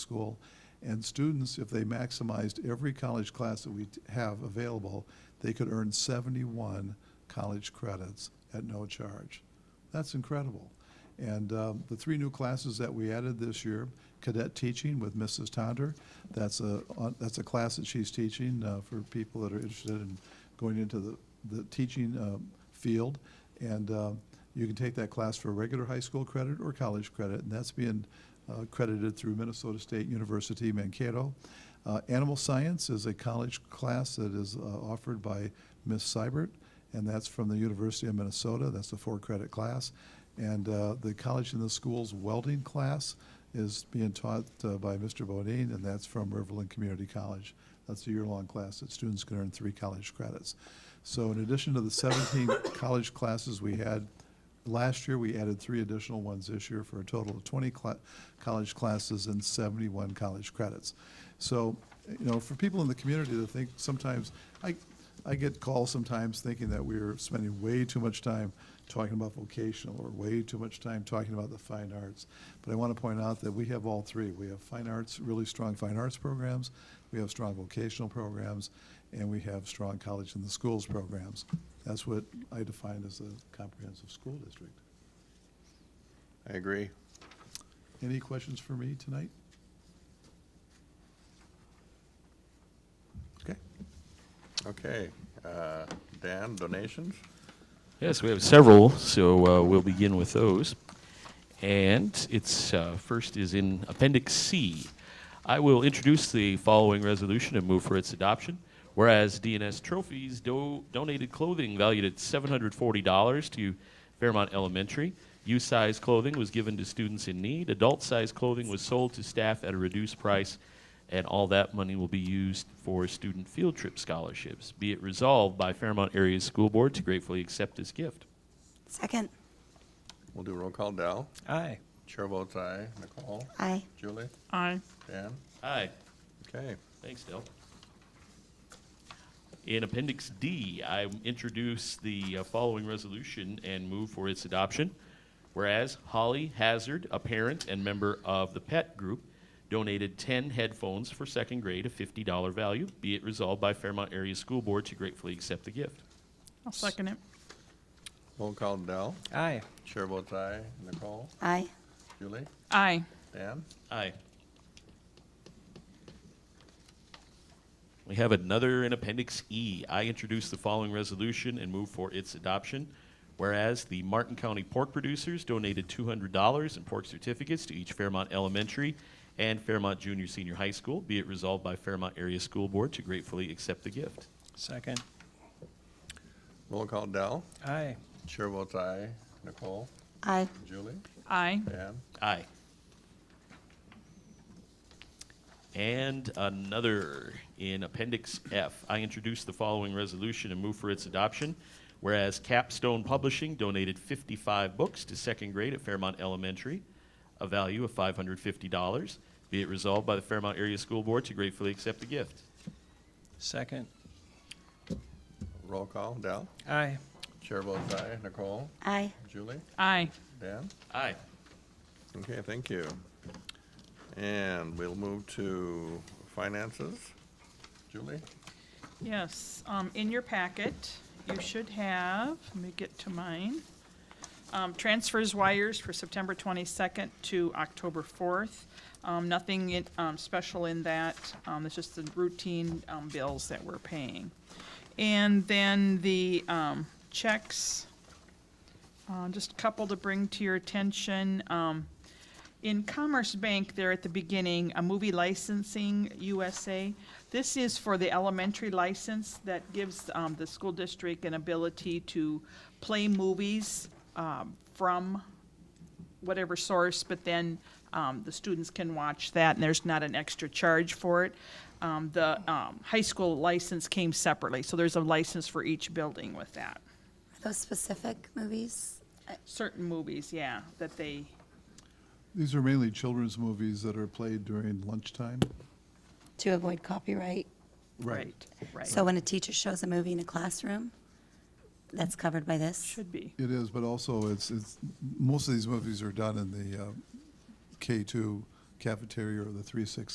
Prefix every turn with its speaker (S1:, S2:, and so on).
S1: school. And students, if they maximized every college class that we t- have available, they could earn 71 college credits at no charge. That's incredible. And um, the three new classes that we added this year, cadet teaching with Mrs. Tonder, that's a, on- that's a class that she's teaching uh, for people that are interested in going into the, the teaching um, field. And uh, you can take that class for regular high school credit or college credit, and that's being uh, credited through Minnesota State University Mankato. Uh, Animal science is a college class that is uh, offered by Miss Seibert, and that's from the University of Minnesota. That's a four-credit class. And uh, the college and the schools welding class is being taught uh, by Mr. Bodine, and that's from Riverland Community College. That's a year-long class that students can earn three college credits. So in addition to the 17 college classes we had last year, we added three additional ones this year for a total of 20 cla- college classes and 71 college credits. So, you know, for people in the community that think sometimes, I, I get calls sometimes thinking that we're spending way too much time talking about vocational or way too much time talking about the fine arts. But I want to point out that we have all three. We have fine arts, really strong fine arts programs, we have strong vocational programs, and we have strong college in the schools programs. That's what I define as a comprehensive school district.
S2: I agree.
S1: Any questions for me tonight? Okay.
S2: Okay, uh, Dan, donations?
S3: Yes, we have several, so uh, we'll begin with those. And it's uh, first is in Appendix C. I will introduce the following resolution and move for its adoption. Whereas DNS Trophies do- donated clothing valued at $740 to Fairmont Elementary, youth size clothing was given to students in need, adult size clothing was sold to staff at a reduced price, and all that money will be used for student field trip scholarships. Be it resolved by Fairmont Area School Board to gratefully accept this gift.
S4: Second.
S2: We'll do roll call. Dell?
S5: Aye.
S2: Chair votes aye. Nicole?
S4: Aye.
S2: Julie?
S6: Aye.
S2: Dan?
S3: Aye.
S2: Okay.
S3: Thanks, Dell. In Appendix D, I introduce the uh, following resolution and move for its adoption. Whereas Holly Hazard, a parent and member of the Pet Group, donated 10 headphones for second grade, a $50 value. Be it resolved by Fairmont Area School Board to gratefully accept the gift.
S6: I'll second it.
S2: Roll call. Dell?
S5: Aye.
S2: Chair votes aye. Nicole?
S4: Aye.
S2: Julie?
S6: Aye.
S2: Dan?
S3: Aye. We have another in Appendix E. I introduce the following resolution and move for its adoption. Whereas the Martin County pork producers donated $200 in pork certificates to each Fairmont Elementary and Fairmont Junior Senior High School, be it resolved by Fairmont Area School Board to gratefully accept the gift.
S5: Second.
S2: Roll call. Dell?
S5: Aye.
S2: Chair votes aye. Nicole?
S4: Aye.
S2: Julie?
S6: Aye.
S2: Dan?
S3: Aye. And another in Appendix F. I introduce the following resolution and move for its adoption. Whereas Capstone Publishing donated 55 books to second grade at Fairmont Elementary, a value of $550, be it resolved by the Fairmont Area School Board to gratefully accept the gift.
S5: Second.
S2: Roll call. Dell?
S5: Aye.
S2: Chair votes aye. Nicole?
S4: Aye.
S2: Julie?
S6: Aye.
S2: Dan?
S3: Aye.
S2: Okay, thank you. And we'll move to finances. Julie?
S6: Yes, um, in your packet, you should have, let me get to mine. Um, transfers wires for September twenty-second to October fourth. Um, nothing in, um, special in that, um, it's just the routine, um, bills that we're paying. And then the, um, checks, uh, just a couple to bring to your attention, um, in Commerce Bank there at the beginning, a movie licensing USA. This is for the elementary license that gives um, the school district an ability to play movies um, from whatever source, but then um, the students can watch that, and there's not an extra charge for it. Um, The um, high school license came separately, so there's a license for each building with that.
S4: Are those specific movies?
S6: Certain movies, yeah, that they,
S1: These are mainly children's movies that are played during lunchtime.
S4: To avoid copyright.
S6: right, right.
S4: So when a teacher shows a movie in a classroom, that's covered by this?
S6: Should be.
S1: It is, but also it's, it's, most of these movies are done in the uh, K-2, cafeteria or the 365